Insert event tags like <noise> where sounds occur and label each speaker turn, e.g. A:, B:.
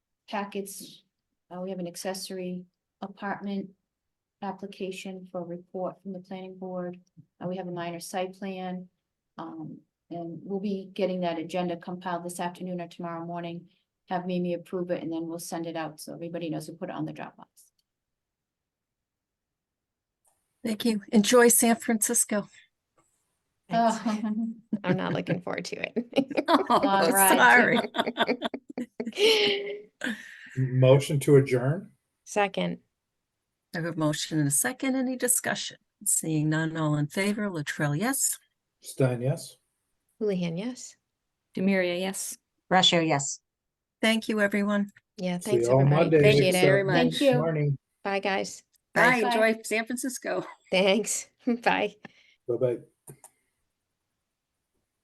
A: packets, uh, we have an accessory apartment application for a report from the planning board. Uh, we have a minor site plan. Um, and we'll be getting that agenda compiled this afternoon or tomorrow morning. Have Mimi approve it and then we'll send it out so everybody knows we put it on the Dropbox.
B: Thank you. Enjoy San Francisco. <laughs>
C: <laughs> Thanks.
A: <laughs> Oh,
C: I'm not looking forward to it. <laughs>
B: Oh,
A: right.
B: Sorry.
D: Motion to adjourn?
C: Second,
B: I have a motion and a second. Any discussion? Seeing none, all in favor, Latrell, yes.
D: Stein, yes?
C: Houlihan, yes.
E: Demiria, yes.
F: Russia, yes.
B: Thank you, everyone.
C: Yeah,
D: See
C: thanks
D: you all
C: everybody.
D: Monday.
C: Appreciate
E: Thanks
C: it.
E: very
A: Thank
E: much.
A: you.
D: Morning,
C: Bye, guys.
B: Bye.
E: Bye. Enjoy San Francisco.
C: Thanks. <laughs> Bye.
D: bye-bye.